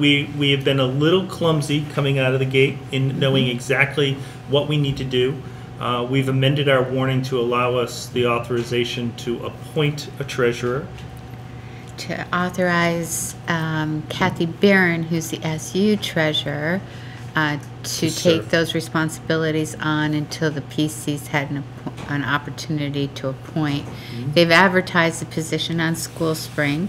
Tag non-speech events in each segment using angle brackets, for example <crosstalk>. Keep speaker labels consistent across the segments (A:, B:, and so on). A: We, we have been a little clumsy coming out of the gate in knowing exactly what we need to do. Uh, We've amended our warning to allow us the authorization to appoint a treasurer.
B: to authorize um, Kathy Barron, who's the SU treasurer, uh, to take
A: serve.
B: those responsibilities on until the PC's had an, appo- an opportunity to appoint. They've advertised the position on School Spring.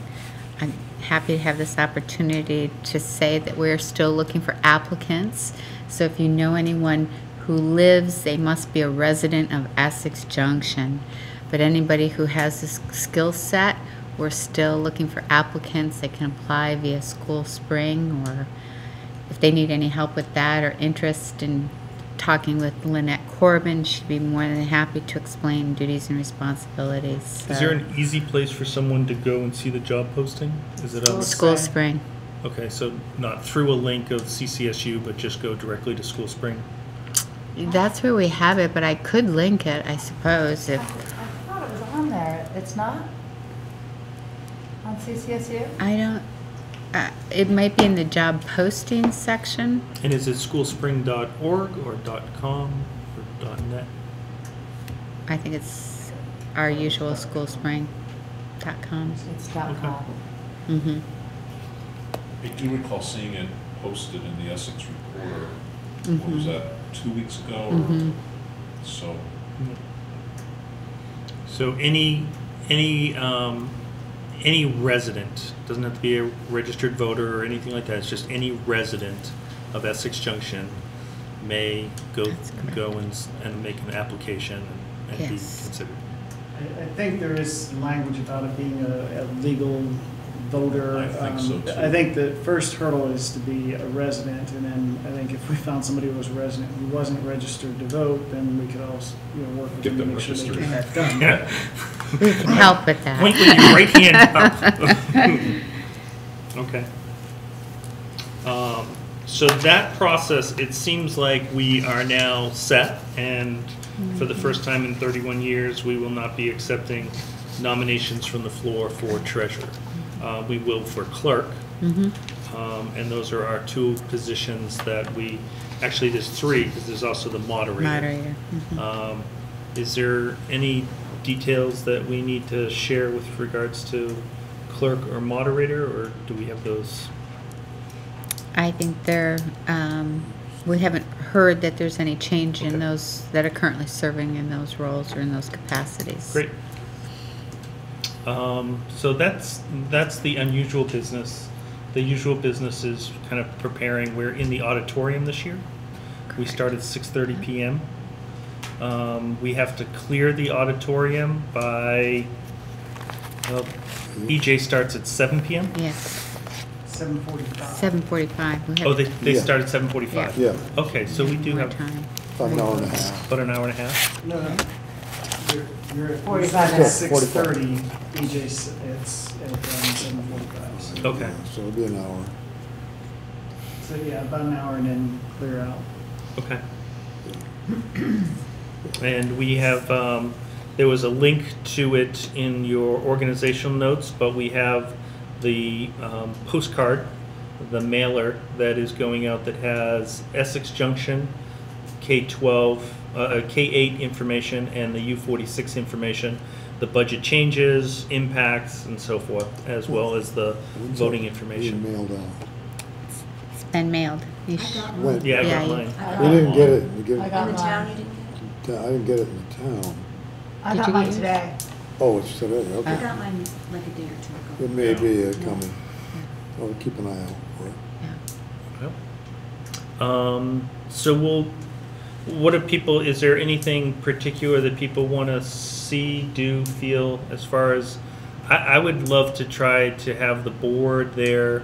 B: I'm happy to have this opportunity to say that we're still looking for applicants. So if you know anyone who lives, they must be a resident of Essex Junction. But anybody who has this skill set, we're still looking for applicants that can apply via School Spring or if they need any help with that or interest in talking with Lynette Corbin, she'd be more than happy to explain duties and responsibilities.
A: Is
B: So-
A: there an easy place for someone to go and see the job posting? Is it on?
B: School Spring.
A: Okay, so not through a link of CCSU, but just go directly to School Spring?
B: That's where we have it, but I could link it, I suppose,
C: I
B: if,
C: thought it was on there. It's not? On CCSU?
B: I don't, uh, it might be in the job posting section.
A: And is it schoolspring.org or .com or .net?
B: I think it's our usual schoolspring.com.
C: It's dot
A: Okay.
C: com.
B: Mm-hmm.
D: I do recall seeing it posted in the Essex Reporter, what was that, two weeks ago? or So,
A: So any, any, um, any resident, doesn't have to be a registered voter or anything like that, it's just any resident of Essex Junction may go,
B: That's correct.
A: go and, s- and make an application and be
B: Yes.
A: considered. <laughs>
E: I I think there is some language about it being a, a legal voter.
D: I think so,
E: Um,
D: too.
E: I think the first hurdle is to be a resident, and then I think if we found somebody who was a resident who wasn't registered to vote, then we could all, s- you know, work with
D: Get
E: them to
D: them
E: make sure they
D: registered.
E: get that done.
A: Yeah.
B: We can help with that.
A: Point with your right hand
B: <laughs>
A: up. <laughs> Okay. Um, So that process, it seems like we are now set, and for the first time in 31 years, we will not be accepting nominations from the floor for treasurer. Uh, We will for clerk, Um, and those are our two positions that we, actually, there's three, because there's also the
B: Moderator. Mhm.
A: um, Is there any details that we need to share with regards to clerk or moderator, or do we have those?
B: I think there, um, we haven't heard that there's any change
A: Okay.
B: in those that are currently serving in those roles or in those capacities.
A: Great. Um, So that's, that's the unusual business. The usual business is kind of preparing. We're in the auditorium this year. We start at 6:30 PM. Um, We have to clear the auditorium by, well, EJ starts at 7 PM?
B: Yes,
E: Seven forty-five.
B: seven forty-five. We
A: Oh,
B: have
A: they, they
F: Yeah.
A: start at 7:45?
F: Yeah,
A: Okay, so we do
B: more
A: have
B: time.
F: about an hour and a half.
A: about an hour and a half.
E: No, no, you're, you're at
C: 45
E: at
C: minutes.
E: six thirty, BJ's, it's at um, seven forty-five. So-
A: Okay.
F: So it'll be an hour.
E: So, yeah, about an hour and then clear out.
A: Okay. And we have, um, there was a link to it in your organizational notes, but we have the um, postcard, the mailer that is going out that has Essex Junction, K-12, uh, uh, K-8 information and the U-46 information, the budget changes, impacts, and so forth, as well as the voting information.
F: We mailed out.
B: It's been mailed. You sh-
F: Went-
A: Yeah, I
B: Yeah,
A: got
B: you-
A: mine.
C: I
F: We
C: got
F: didn't
C: mine.
F: get it, we get
C: I
F: it,
C: got mine.
F: I didn't get it in the town.
C: I
B: Did
C: got
B: you
C: mine
B: get it?
C: today.
F: Oh, it's today,
G: I
F: okay.
G: got mine like a day or two ago.
F: It may be uh, coming. I'll keep an eye out
B: yeah.
F: for it.
A: Um, so we'll, what do people, is there anything particular that people want to see, do, feel as far as, I, I would love to try to have the board there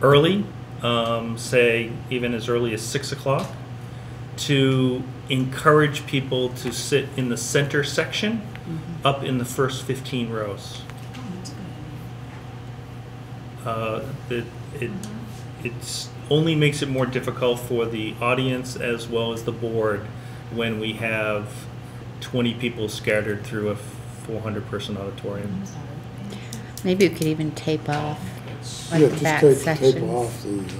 A: early, um, say even as early as six o'clock, to encourage people to sit in the center section up in the first 15 rows
G: Oh, that's good.
A: uh, that it, it's only makes it more difficult for the audience as well as the board when we have 20 people scattered through a 400-person auditorium.
G: I'm sorry.
B: Maybe you could even tape off.
D: it's.
B: Like
F: Yeah,
B: the
F: just
B: back
F: take- Tape
B: sections.
F: off the uh,